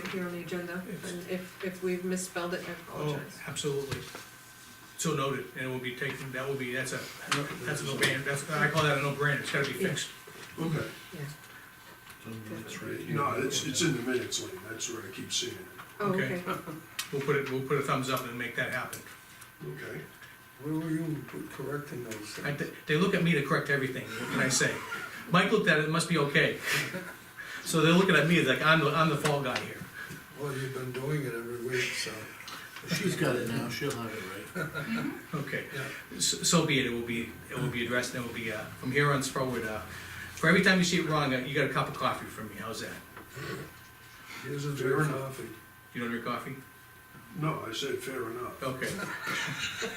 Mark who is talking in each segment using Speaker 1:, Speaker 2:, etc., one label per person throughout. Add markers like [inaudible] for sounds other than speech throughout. Speaker 1: here on the agenda, and if, if we've misspelled it, I
Speaker 2: Oh,
Speaker 1: apologize.
Speaker 2: absolutely. So noted, and it will be taken, that will be, that's a, that's a no-brainer, that's, I call that a no-brainer, it's gotta be fixed.
Speaker 3: Okay,
Speaker 1: Yeah.
Speaker 4: That's right here.
Speaker 3: no, it's, it's in the minutes, Lee, that's where I keep seeing it,
Speaker 1: Oh,
Speaker 2: Okay.
Speaker 1: okay.
Speaker 2: We'll put it, we'll put a thumbs up and make that happen.
Speaker 3: okay?
Speaker 4: Where were you correcting those
Speaker 2: I,
Speaker 4: things?
Speaker 2: they- they look at me to correct everything, what can I say? Mike looked at it, it must be okay. So they're looking at me like I'm, the I'm the fall guy here.
Speaker 4: Well, you've been doing it every week, so.
Speaker 5: She's got it now, she'll have it right.
Speaker 2: Okay,
Speaker 4: Yeah.
Speaker 2: so, so be it, it will be, it will be addressed, and it will be, uh, from here on forward, uh, for every time you see it wrong, uh, you got a cup of coffee from me, how's that?
Speaker 4: Here's a
Speaker 3: Fair
Speaker 4: drink of
Speaker 3: enough.
Speaker 4: coffee.
Speaker 2: You don't drink coffee?
Speaker 3: No, I said fair enough.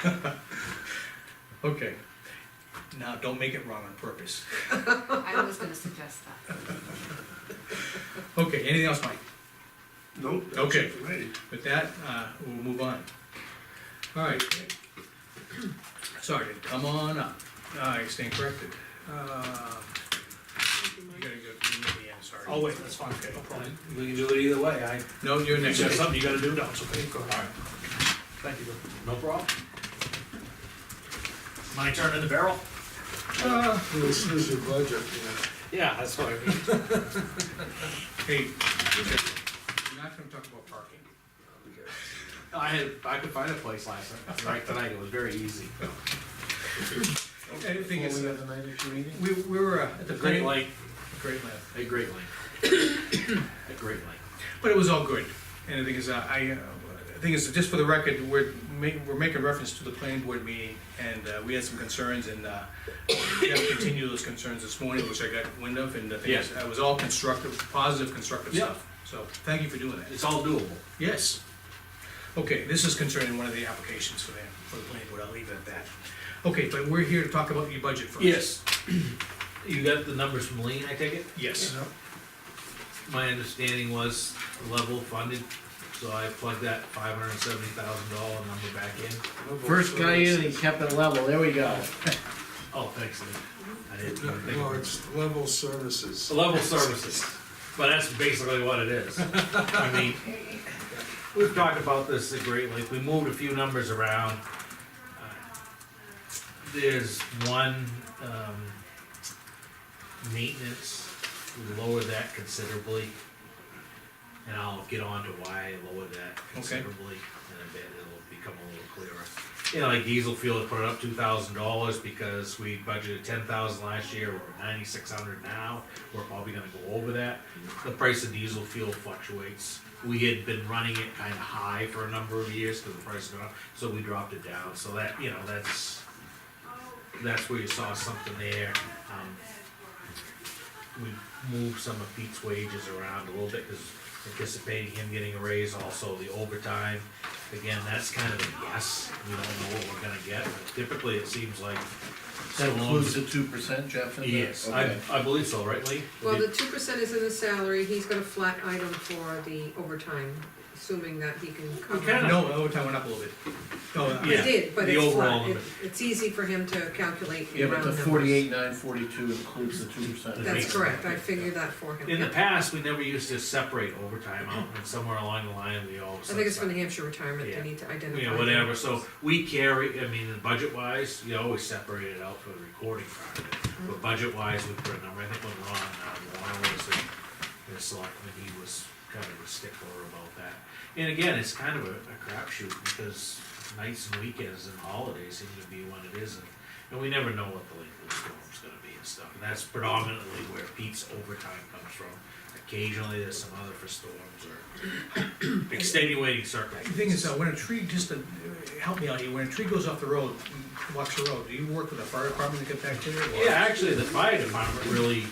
Speaker 2: Okay. [laughs] Okay. Now, don't make it wrong on purpose.
Speaker 6: I was gonna suggest
Speaker 7: [laughs]
Speaker 6: that.
Speaker 2: Okay, anything else, Mike?
Speaker 3: Nope, that's
Speaker 2: Okay.
Speaker 3: it for me.
Speaker 2: With that, uh, we'll move on. All right. [clears throat] Sergeant, come on up. I stand corrected. Uh,
Speaker 1: Thank you,
Speaker 2: You
Speaker 1: Mike.
Speaker 2: gotta go, you, yeah, sorry.
Speaker 7: Oh, wait, that's fine, okay, no problem. We can do it either way, I, if
Speaker 2: No, you're next.
Speaker 7: there's something you gotta do, no, it's okay, go ahead. Thank you, Bill. No problem. My turn in the barrel?
Speaker 4: Ah, This is your budget, you
Speaker 7: Yeah, that's what I mean.
Speaker 2: Hey, we're not gonna talk about parking.
Speaker 7: I had, I could find a place last night, right tonight, it was very easy.
Speaker 2: Okay, the thing is,
Speaker 4: know.
Speaker 2: uh,
Speaker 4: the night of your meeting?
Speaker 2: we, we were uh, at the.
Speaker 7: A great
Speaker 2: planning-
Speaker 7: light,
Speaker 2: Great land.
Speaker 7: a great light. A great light.
Speaker 2: But it was all good, and the thing is, uh, I, uh, the thing is, just for the record, we're ma- we're making reference to the planning board meeting, and, uh, we had some concerns, and, uh, Jeff continued those concerns this morning, which I got wind of, and the thing is,
Speaker 7: Yeah.
Speaker 2: it was all constructive, positive, constructive
Speaker 7: Yeah.
Speaker 2: stuff. So, thank you for doing that.
Speaker 7: It's all doable.
Speaker 2: Yes. Okay, this is concerning one of the applications for the, for the planning board, I'll leave it at that. Okay, but we're here to talk about your budget first.
Speaker 7: You got the numbers from Lean, I take it?
Speaker 2: Yes,
Speaker 7: my understanding was level funded, so I plugged that five hundred and seventy thousand dollar number back in.
Speaker 5: First guy in, he kept it level, there we go.
Speaker 7: Oh, thanks, Lee. I didn't even think
Speaker 4: No,
Speaker 7: of it.
Speaker 4: it's level services.
Speaker 7: So Level services, but that's basically what it is. I mean, we've talked about this at great length, we moved a few numbers around. Uh, There's one, um, maintenance, we lowered that considerably. And I'll get on to why I lowered that considerably in a bit, it'll become a little clearer. You know, like diesel fuel, it put it up two thousand dollars because we budgeted ten thousand last year, we're at ninety-six hundred now, we're probably gonna go over that. The price of diesel fuel fluctuates, we had been running it kinda high for a number of years, cause the price went up, so we dropped it down, so that, you know, that's, that's where you saw something there, um, we moved some of Pete's wages around a little bit, cause anticipating him getting a raise, also the overtime. Again, that's kind of a guess, we don't know what we're gonna get, but typically it seems like.
Speaker 5: That
Speaker 7: so long
Speaker 5: includes
Speaker 7: as-
Speaker 5: the two percent, Jeff, in there?
Speaker 7: Yes, I,
Speaker 5: Okay.
Speaker 7: I believe so, right, Lee?
Speaker 1: Well, the two percent is in the salary, he's got a flat item for the overtime, assuming that he can cover.
Speaker 7: kinda-
Speaker 2: no, overtime went up a little bit. No, I-
Speaker 1: He
Speaker 7: Yeah,
Speaker 1: did, but
Speaker 7: the
Speaker 1: it's
Speaker 7: overall
Speaker 1: flat, It-
Speaker 7: number.
Speaker 1: it's easy for him to calculate in
Speaker 5: Yeah, but
Speaker 1: round
Speaker 5: the
Speaker 1: numbers.
Speaker 5: forty-eight, nine, forty-two includes the two percent.
Speaker 1: That's correct, I figured that for him,
Speaker 7: In the
Speaker 1: yeah.
Speaker 7: past, we never used to separate overtime out, and somewhere along the line, we always.
Speaker 1: I think it's for New Hampshire retirement,
Speaker 7: Yeah.
Speaker 1: they need to identify.
Speaker 7: You know,
Speaker 1: that.
Speaker 7: whatever, so we carry, I mean, budget wise, you always separate it out for the recording part of it. But budget wise, we put a number, I think when Ron, uh, Ron was in the selectman, he was kind of a stickler about that. And again, it's kind of a, a crapshoot because nights and weekends and holidays seem to be when it isn't. And we never know what the length of the storm's gonna be and stuff, and that's predominantly where Pete's overtime comes from. Occasionally, there's some other for storms or [coughs] extenuating
Speaker 2: The
Speaker 7: circumstances.
Speaker 2: thing is, uh, when a tree, just to uh, help me out here, when a tree goes off the road, walks the road, do you work with the fire department to get back to it? or-
Speaker 7: Yeah, actually, the fire department really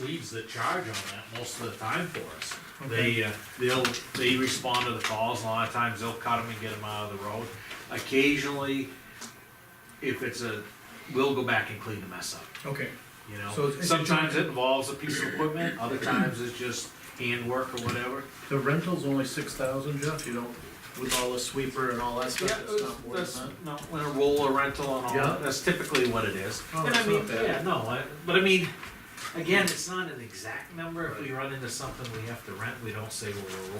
Speaker 7: leads the charge on that most of the time for us. They, uh, they'll, they respond to the calls, a lot of times they'll cut them and get them out of the road. Occasionally, if it's a, we'll go back and clean the mess up,
Speaker 2: Okay,
Speaker 7: you
Speaker 2: So
Speaker 7: know?
Speaker 2: it's- it's a
Speaker 7: Sometimes
Speaker 2: joint-
Speaker 7: it involves a piece of equipment, other times it's just handwork or whatever.
Speaker 5: The rental's only six thousand, Jeff, you don't, with all the sweeper and all that stuff, it's not more than
Speaker 7: that's,
Speaker 5: that.
Speaker 7: no, when a roller rental and all
Speaker 5: Yeah.
Speaker 7: that, that's typically what it is.
Speaker 5: Oh,
Speaker 7: And I
Speaker 5: that's
Speaker 7: mean,
Speaker 5: not bad.
Speaker 7: yeah, no, I, but I mean, again, it's not an exact number, if we run into something we have to rent, we don't say, well, we're